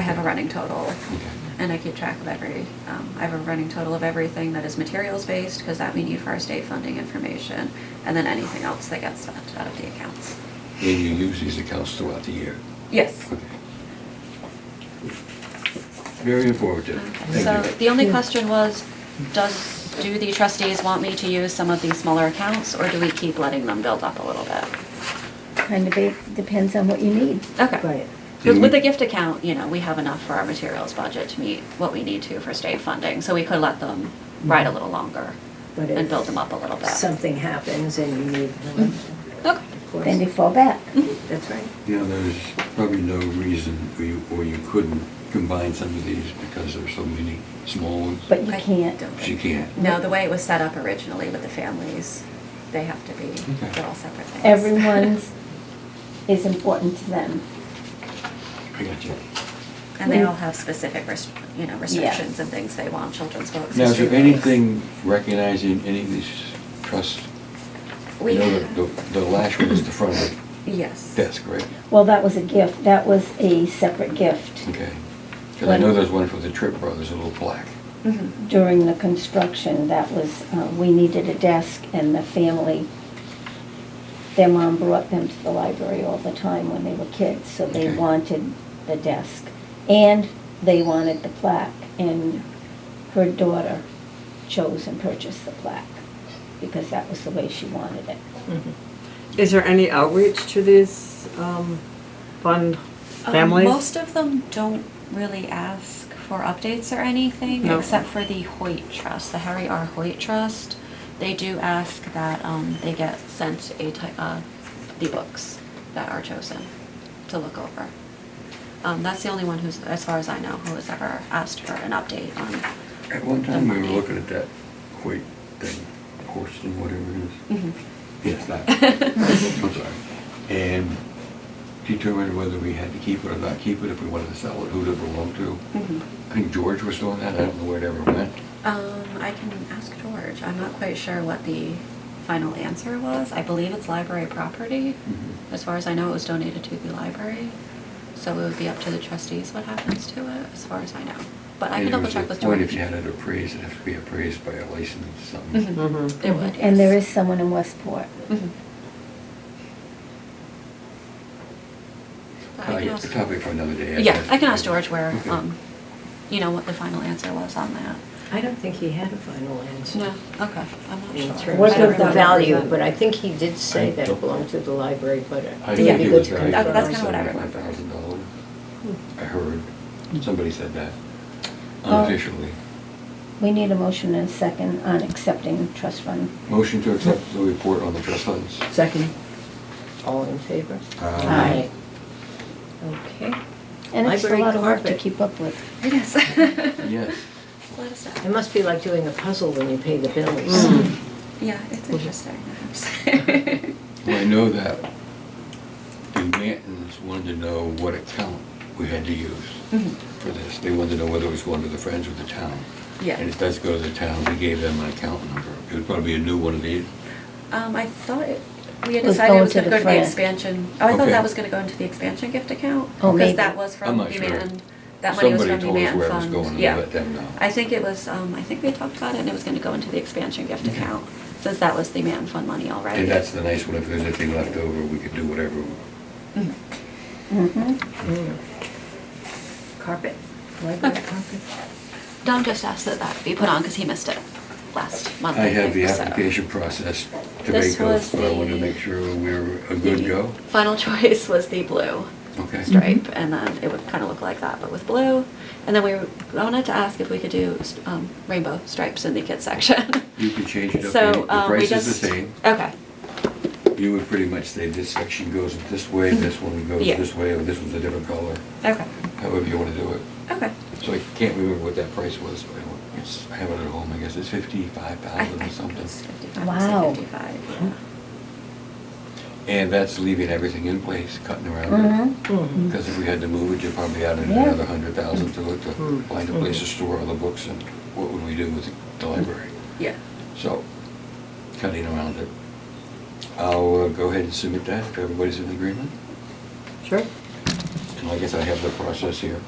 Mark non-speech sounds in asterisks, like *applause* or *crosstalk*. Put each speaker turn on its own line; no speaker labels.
have a running total, and I keep track of every, um, I have a running total of everything that is materials-based, because that we need for our state funding information, and then anything else that gets spent out of the accounts.
And you use these accounts throughout the year?
Yes.
Very informative.
Okay, So
Thank you.
the only question was, does, do the trustees want me to use some of these smaller accounts, or do we keep letting them build up a little bit?
Kind of ba- depends on what you need.
Okay.
Right.
Because with the gift account, you know, we have enough for our materials budget to meet what we need to for state funding, so we could let them ride a little longer
But
and
if
build them up a little bit.
Something happens and you need one,
Okay.
of
Then they
course.
fall back.
Mm-hmm.
That's right.
Yeah, there's probably no reason where you, where you couldn't combine some of these because there's so many small ones.
But you
I
can't.
don't
She
think-
can't.
No, the way it was set up originally with the families, they have to be,
Okay.
they're all separate things.
Everyone's is important to them.
I got you.
*laughs* And they all have specific, rest- you know, restrictions and things they want, children's books.
Now, is
history
there
books.
anything recognizing any of these trusts?
We
You know,
have-
the- The the last one is the front of
Yes.
the desk, right?
Well, that was a gift. That was a separate gift
Okay. Because I know there's one for the Tripp Brothers, a little plaque.
Mhm.
during the construction. That was, uh, we needed a desk and the family, their mom brought them to the library all the time when they were kids, so they
Okay.
wanted the desk. And they wanted the plaque, and her daughter chose and purchased the plaque because that was the way she wanted it.
Is there any outreach to these um, fund
Um,
families?
most of them don't really ask for updates or anything,
No.
except for the Hoyt Trust, the Harry R. Hoyt Trust. They do ask that um, they get sent a ty- uh, the books that are chosen to look over. Um, that's the only one who's, as far as I know, who has ever asked for an update on.
At one
the
time, we were
money.
looking at that Hoyt thing, Horston, whatever it is.
Mhm.
Mm-hmm,
Yes, that.
*laughs*
I'm sorry. And determined whether we had to keep it or not keep it, if we wanted to sell it, who it belonged to.
Mhm.
mm-hmm.
I think George was doing that. I don't know where it ever went.
Um, I can ask George. I'm not quite sure what the final answer was. I believe it's library property.
Mhm.
As far as I know, it was donated to the library. So it would be up to the trustees what happens to it, as far as I know. But I
And
can
it
double
was
check
a
with
point
George.
If you had it appraised, it'd have to be appraised by a licensed something.
Mhm. It
Mm-hmm.
would,
And there
yes.
is someone in Westport.
Mhm. But Mm-hmm. I
Uh,
can
It's a
ask-
topic for another day.
Yeah, I can ask George where,
Okay.
um, you know, what the final answer was on that.
I don't think he had a final answer.
Okay, I'm
In
not sure.
terms
What
I don't
does
of the
that
remember.
value,
represent?
but I think he did say
I
that
don't-
it belonged to the library, but it-
I
it'd
think
be
it
good
was
to
valued
That-
at
that's
confirm.
kinda what I remember.
$75,000. I heard, somebody said that
Uh,
Oh.
unofficially.
Mm-hmm.
We need a motion and a second on accepting trust fund.
Motion to accept the report on the trust funds.
Hmm. Second. All in favor?
Aye.
Okay.
And it's a
Library
lot of work to
carpet.
keep up with.
It is. *laughs*
Yes.
Let us
It
know.
must be like doing a puzzle when you pay the bills.
Mm.
Yeah, it's interesting. *laughs*
Well, I know that the Mantons wanted to know what account we had to use
Mhm.
for this. They wanted to know whether it was going to the Friends or the town.
Yeah.
And it does go to the town. We gave them an account number. It would probably be a new one of these.
Um, I thought it, we had
Was
decided it
going
was
to
gonna
the
go to the
friend.
expansion, oh, I thought
Okay.
that was gonna go into the expansion gift account.
Oh,
Because
maybe.
that was
I'm
from
not
the
sure.
man, that money was from the
Somebody
man
told us where it was going
fund,
and we
yeah.
let them know.
I think it was, um, I think we talked about it and it was gonna go into the expansion gift
Okay.
account, since that was the man fund money already.
And that's the nice one. If there's anything left over, we could do whatever. we-
Mhm.
Mhm.
Mm. Carpet, library
Okay.
carpet.
Don just asked that that be put on, cause he missed it last month,
I
I
have the
think, so.
application process to
This
make
was
those, but I wanted to
the-
make sure we were a good
The
go.
Final choice was the blue.
Okay.
stripe, and then it would kind of look like that, but with blue. And then we were, I wanted to ask if we could do um, rainbow stripes in the kids section.
You can change it up.
so
The
um, we
price is
just
the same.
okay,
You would pretty much say this section goes this way, this one goes
Mm-hmm. Yeah.
this way, or this one's a different color,
okay,
however you want to do it.
okay.
So I can't remember what that price was, but I- it's, I have it at home, I guess it's fifty-five
I, I
thousand or
think it
something.
was 55,
Wow.
55,
And that's leaving everything in place, cutting around
Mhm.
Mm-hmm.
it.
Mhm.
Because if we had to move it, you'd probably add in
Yeah.
another hundred thousand to it to
Mm.
find a place to store all the books and what would we do with the library?
yeah.
So, cutting around it. I'll uh, go ahead and submit that, if everybody's in agreement.
Sure.
And I guess I have the process here.